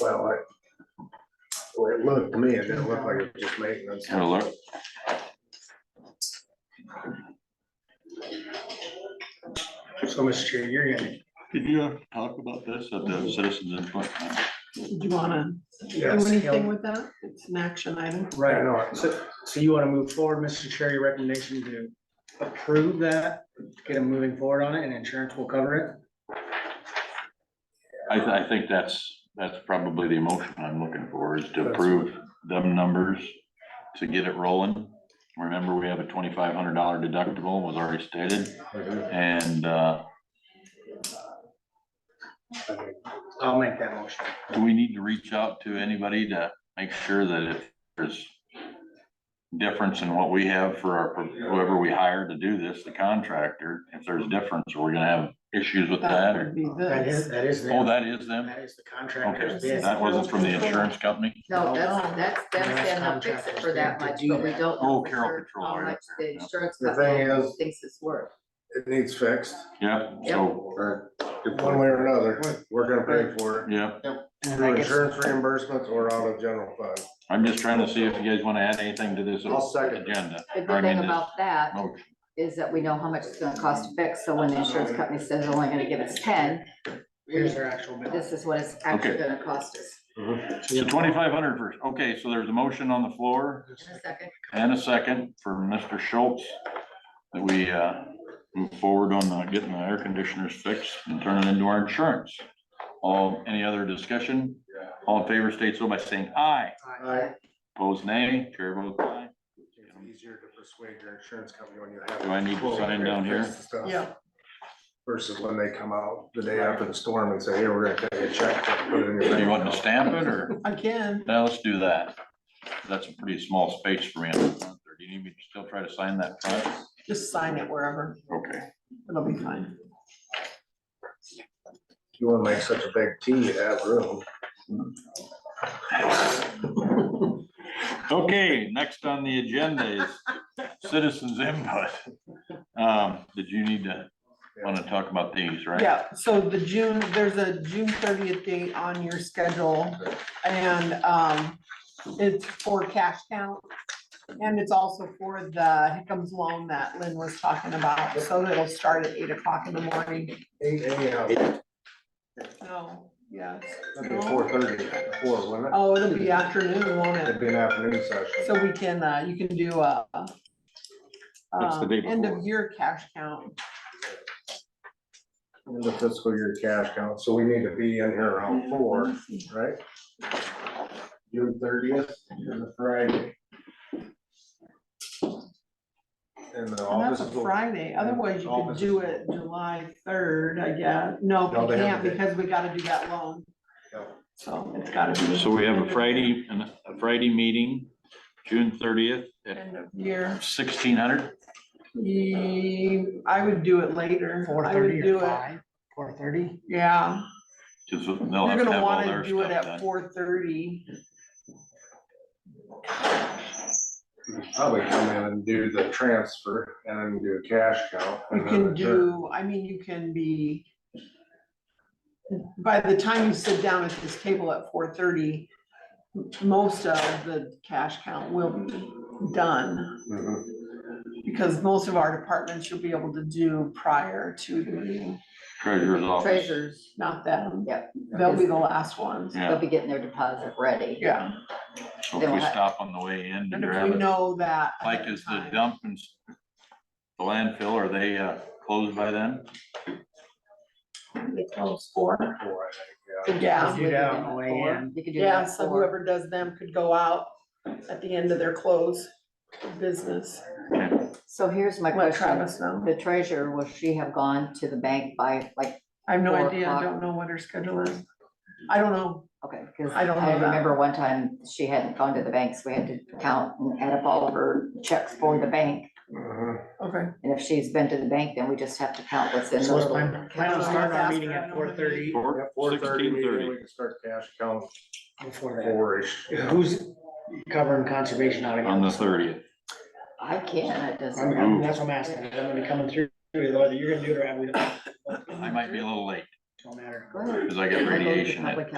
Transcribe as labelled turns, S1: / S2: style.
S1: Well, I, the way it looked to me, it didn't look like it was just maintenance.
S2: Have a look.
S1: So, Mr. Chair, you're gonna,
S2: Did you uh, talk about this at the citizens input?
S3: Do you wanna do
S1: yes,
S3: anything with that? It's an action item.
S1: I
S4: Right,
S1: know it.
S4: so, so you wanna move forward, Mr. Chair, your recommendation to approve that, get them moving forward on it, and insurance will cover
S2: I, th- I think that's, that's probably the emotion I'm looking for is to approve them numbers to get it rolling. Remember, we have a twenty-five hundred dollar deductible was already stated and, uh,
S4: it? I'll make that motion.
S2: do we need to reach out to anybody to make sure that if there's difference in what we have for our, whoever we hire to do this, the contractor, if there's difference, we're gonna have issues with that
S3: Oh, That
S2: or,
S3: would be
S4: That is,
S3: this.
S4: that is,
S2: oh,
S4: them.
S2: that is them?
S4: that is the contractor's
S2: Okay,
S4: bid.
S2: that wasn't from the insurance company?
S5: No, that's, that's them saying they'll fix it for that much, but we don't.
S2: Oh,
S5: know for
S2: Carroll
S5: sure
S2: Patrol,
S5: How
S2: right
S5: much
S2: there,
S5: the
S2: yeah.
S5: insurance
S1: The thing
S5: company
S1: is-
S5: thinks it's worth.
S1: it needs fixed,
S2: Yeah, so,
S1: one way or another, we're gonna pay for it.
S2: yeah,
S4: And I
S1: Through
S4: guess,
S1: insurance reimbursements or out of general fund.
S2: I'm just trying to see if you guys wanna add anything to this
S1: I'll second.
S2: agenda.
S5: The
S2: or I mean,
S5: good thing
S2: this
S5: about that
S2: motion.
S5: is that we know how much it's gonna cost to fix, so when the insurance company says they're only gonna give us ten,
S4: here's their actual bid.
S5: this is what it's actually
S2: Okay.
S5: gonna cost us.
S2: So twenty-five hundred first, okay, so there's a motion on the floor
S5: In a second,
S2: and a second for Mr. Schultz. That we, uh, move forward on uh, getting the air conditioners fixed and turn it into our insurance. All, any other discussion? All in favor state so by saying aye,
S1: I,
S2: opposed nay, chair votes aye.
S1: it's easier to persuade your insurance company when you have.
S2: Do I need to sign down here?
S1: Yeah. Versus when they come out the day after the storm and say, hey, we're gonna take a check. put it in your
S2: Are you wanting
S1: bank."
S2: to stamp it or?
S3: Again,
S2: Now let's do that. That's a pretty small space for me. on the front there. Do you need me to still try to sign that front?
S3: just sign it wherever.
S2: Okay.
S3: It'll be fine.
S1: You wanna make such a big T, you have room.
S2: Okay, next on the agenda is citizens input. Um, did you need to, want to talk about these, right?
S3: Yeah, so the June, there's a June thirtieth date on your schedule and um it's for cash count. And it's also for the Hickams loan that Lynn was talking about, so it'll start at eight o'clock in the morning.
S1: Eight AM,
S3: No, Oh, yes.
S1: that'd be four thirty, four, wouldn't it?
S3: Oh, it'll be afternoon, won't it?
S1: It'd be an afternoon session.
S3: So we can, uh, you can do a.
S2: That's the
S3: um,
S2: day
S3: End of
S2: before.
S3: year cash count.
S1: In the fiscal year cash count, so we need to be in here around four, right? June thirtieth is a Friday. And the
S3: And
S1: office
S3: that's a
S1: is open.
S3: Friday, otherwise you could
S1: Office is
S3: do it July third, I guess. No,
S1: No,
S3: you
S1: they have
S3: can't
S1: the day.
S3: because we gotta do that loan.
S1: Yeah.
S3: So it's gotta be.
S2: So we have a Friday, and a Friday meeting, June thirtieth at
S3: End of year.
S2: sixteen hundred.
S3: Ye- I would do it later.
S4: Four
S3: I would
S4: thirty
S3: do
S4: or
S3: it-
S4: five, four thirty?
S3: Yeah,
S2: Cause they'll
S3: you're
S2: Oh, have to
S3: gonna
S2: have all their
S3: wanna do
S2: stuff
S3: it at
S2: done.
S3: four thirty.
S1: Probably come in and do the transfer and then do a cash count.
S3: You
S1: and then
S3: can
S1: adjourn.
S3: do, I mean, you can be. By the time you sit down at this table at four thirty, most of the cash count will be done.
S1: Mhm.
S3: Because most of our departments you'll be able to do prior to the meeting,
S2: Treasurer's office.
S5: Uh, treasures,
S3: not them.
S5: Yep.
S3: They'll be the last ones.
S5: they'll
S2: Yeah,
S5: be getting their deposit ready.
S3: Yeah,
S2: so if we stop on the way in to
S3: and if
S2: grab
S3: we
S2: it,
S3: know that. ahead
S2: like
S3: of
S2: is the
S3: time-
S2: dump and s- the landfill, are they, uh, closed by then?
S3: They close
S1: Four,
S3: for.
S1: I think, yeah.
S3: Yeah.
S5: Because we
S4: Yeah,
S5: did them at
S4: way
S5: four.
S4: in.
S5: You could do
S3: Yeah,
S5: that
S3: so
S5: four.
S3: whoever does them could go out at the end of their close of business.
S5: So here's my
S3: Let
S5: question,
S3: Travis know.
S5: the treasurer, will she have gone to the bank by like
S3: I have no
S5: Four
S3: idea. I
S5: o'clock.
S3: don't know what her schedule is. I don't know.
S5: Okay, because
S3: I
S5: I
S3: don't know that.
S5: remember one time she hadn't gone to the banks, we had to count and add up all of her checks for the bank.
S1: Mhm.
S3: Okay.
S5: And if she's been to the bank, then we just have to count what's in the
S4: So let's
S5: little.
S4: plan, plan on starting our meeting at four thirty,
S1: Yeah, Four thirty, maybe we can start cash count
S4: before that.
S1: four-ish.
S4: Who's covering conservation out again?
S2: On the thirtieth.
S5: I can, it doesn't.
S4: I'm, I'm, that's what I'm asking, I'm gonna be coming through, whether you're gonna do it or not, we don't,
S2: I might be a little late,
S4: don't matter.
S5: Go ahead.
S2: cause I got
S5: I go to
S2: radiation at
S5: public